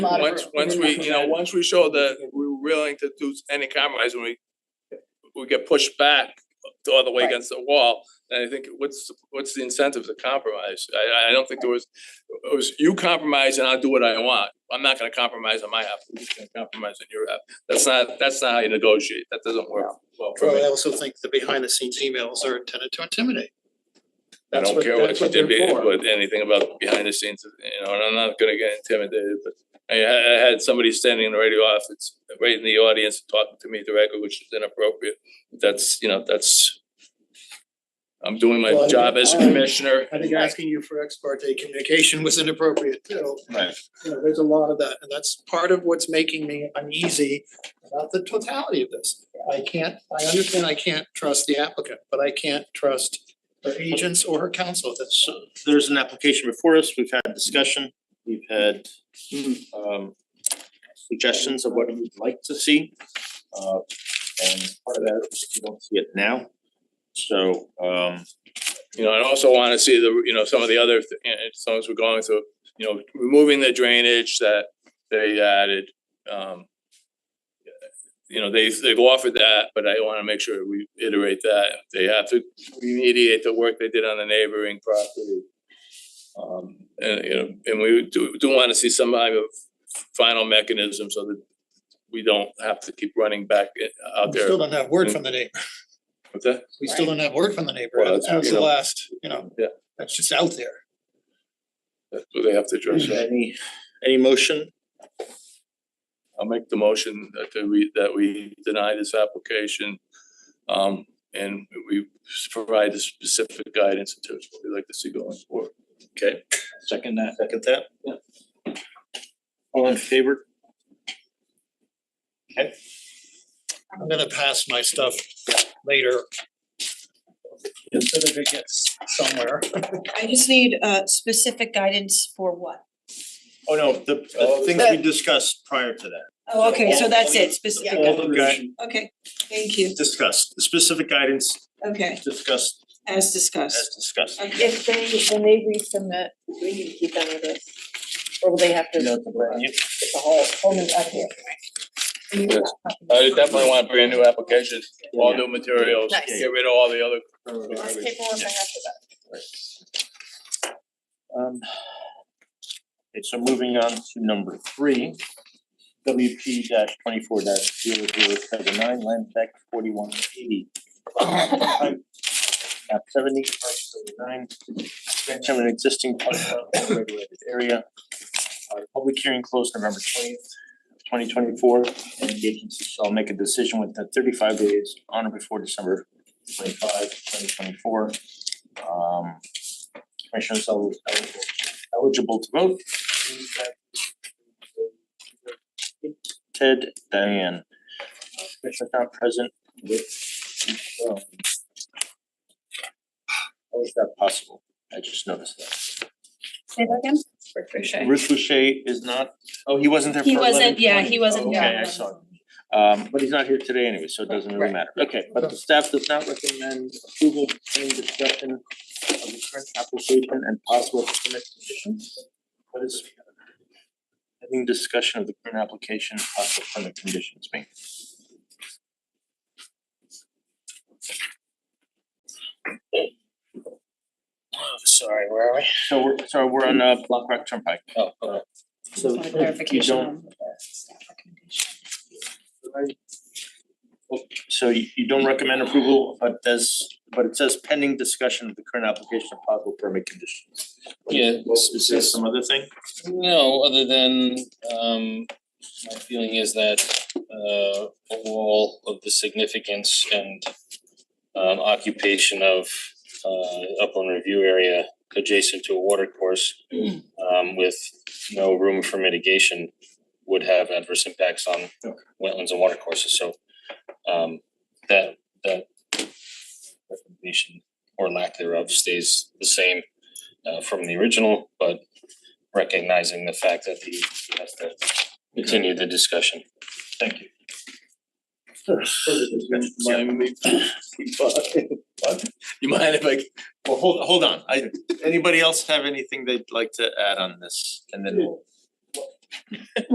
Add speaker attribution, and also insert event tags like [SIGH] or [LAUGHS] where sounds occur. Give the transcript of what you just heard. Speaker 1: Once, once we,
Speaker 2: [LAUGHS]
Speaker 1: you know, once we show that we're willing to do any compromise and we we get pushed back the other way
Speaker 3: Right.
Speaker 1: against the wall, then I think what's what's the incentive to compromise? I I- I don't think there was, it was you compromise and I'll do what I want. I'm not gonna compromise on my half, you're just gonna compromise on your half. That's not, that's not how you negotiate. That doesn't work well for
Speaker 4: Well, I
Speaker 1: me.
Speaker 4: also think the behind the scenes emails are intended to intimidate.
Speaker 1: I
Speaker 4: That's
Speaker 1: don't care what
Speaker 4: that's
Speaker 1: you did,
Speaker 4: they're
Speaker 1: be-
Speaker 4: for.
Speaker 1: with anything about behind the scenes, you know, and I'm not gonna get intimidated, but I had, I had somebody standing in the radio office, right in the audience, talking to me directly, which is inappropriate. That's, you know, that's I'm doing
Speaker 4: Well,
Speaker 1: my
Speaker 4: I-
Speaker 1: job as
Speaker 4: I-
Speaker 1: commissioner.
Speaker 4: I think asking you for ex parte communication was inappropriate too.
Speaker 5: Right.
Speaker 4: You know, there's a lot of that, and that's part of what's making me uneasy about the totality of this. I can't, I understand I can't trust the applicant, but I can't trust her agents or her counsel, that's.
Speaker 5: So there's an application before us, we've had discussion, we've had um suggestions of what we'd like to see. Uh and part of that is we don't see it now. So um
Speaker 1: You know, and also wanna see the, you know, some of the other, th- and and songs we're going through, you know, removing the drainage that they added, um. You know, they they've offered that, but I wanna make sure we iterate that, they have to remediate the work they did on the neighboring property. Um, and you know, and we do do wanna see some kind of final mechanism so that we don't have to keep running back uh, out
Speaker 4: We
Speaker 1: there.
Speaker 4: Still don't have word from the neighbor,
Speaker 1: What's that?
Speaker 4: we still don't have word from the neighbor,
Speaker 1: Well,
Speaker 4: that's
Speaker 1: that's- you
Speaker 4: the
Speaker 1: know.
Speaker 4: last, you know,
Speaker 1: Yeah.
Speaker 4: that's just out there.
Speaker 1: That's what they have to address, right?
Speaker 5: any any motion,
Speaker 1: I'll make the motion that the- we, that we deny this application. Um, and we provide the specific guidance in terms of what we'd like to see going forward.
Speaker 5: okay, second that, second that? Yeah. All in favor?
Speaker 4: I'm gonna pass my stuff later. So that it gets somewhere.
Speaker 6: I just need uh specific guidance for what?
Speaker 5: Oh, no, the the things we discussed prior to that,
Speaker 6: Oh, okay, so that's it,
Speaker 5: all
Speaker 6: specific,
Speaker 5: the guy
Speaker 6: okay, thank you,
Speaker 5: discussed, the specific guidance
Speaker 6: okay,
Speaker 5: discussed
Speaker 6: as
Speaker 5: as
Speaker 6: discussed.
Speaker 5: discussed.
Speaker 6: Okay,
Speaker 2: If they, when they resubmit, do we need to keep them with us, or will they have to
Speaker 5: You know,
Speaker 2: get the whole, whole new up here?
Speaker 1: Yes. I definitely want brand new applications, all new materials,
Speaker 2: Nice.
Speaker 1: get rid of all the other.
Speaker 2: Less paperwork I have for that.
Speaker 5: Um. Okay, so moving on to number three. WP twenty-four 79 land tax forty-one eighty. Map seventy, parcel nine, grant of an existing parcel in a regulated area. Uh, public hearing closed November twentieth, twenty twenty-four, and the agency shall make a decision within thirty-five days on or before December 25, 2024. Um, commissioners el- eligible eligible to vote. Ted, Diane, Commissioner not present with. um, How is that possible? I just noticed that.
Speaker 7: Say that again?
Speaker 5: Ruth Boucher is not, oh, he wasn't there for
Speaker 7: He
Speaker 5: eleven
Speaker 7: wasn't, yeah, he wasn't
Speaker 5: Okay,
Speaker 7: here.
Speaker 5: I saw it. Um, but he's not here today anyway, so it doesn't really matter. Okay, but the staff does not recommend approval, same discussion of the current application and possible permit conditions. What is having discussion of the current application, and possible permit conditions mean?
Speaker 4: Oh, Sorry, where are we?
Speaker 5: So we're, so we're on uh Black Rock Turnpike.
Speaker 4: Oh,
Speaker 5: So
Speaker 7: Just want a clarification on the staff recommendation.
Speaker 5: So you you don't recommend approval, but does, but it says pending discussion of the current application and possible permit conditions.
Speaker 8: Yeah,
Speaker 5: Is there some other thing?
Speaker 8: no, other than um my feeling is that uh overall of the significance and um occupation of uh upland review area adjacent to a water course um with no room for mitigation would have adverse impacts on wetlands and water courses, so um that that recommendation or lack thereof stays the same uh from the original, but recognizing the fact that he has to continue the discussion.
Speaker 5: Thank you.
Speaker 1: Mind me- What? You mind if I,
Speaker 5: Well, hold hold on, I, anybody else have anything they'd like to add on this and then we'll